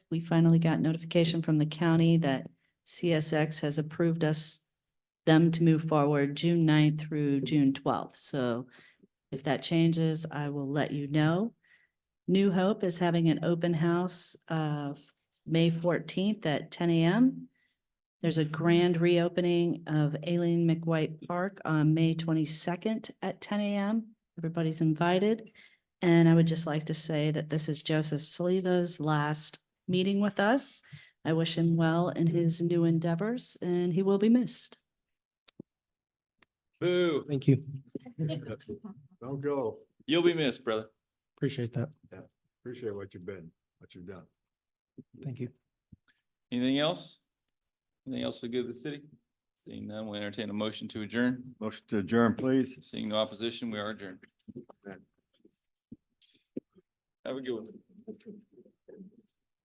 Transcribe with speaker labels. Speaker 1: we finally got notification from the county that CSX has approved us them to move forward June 9th through June twelfth. So if that changes, I will let you know. New Hope is having an open house of May fourteenth at ten AM. There's a grand reopening of Aileen McWhite Park on May twenty-second at ten AM. Everybody's invited. And I would just like to say that this is Joseph Saliva's last meeting with us. I wish him well in his new endeavors and he will be missed.
Speaker 2: Boo,
Speaker 3: Thank you.
Speaker 4: Don't go.
Speaker 2: you'll be missed, brother.
Speaker 3: Appreciate that.
Speaker 4: Appreciate what you've been, what you've done.
Speaker 3: Thank you.
Speaker 2: Anything else? Anything else to give the city? Seeing none, we entertain a motion to adjourn.
Speaker 4: Motion to adjourn, please.
Speaker 2: Seeing no opposition, we are adjourned. Have a good one.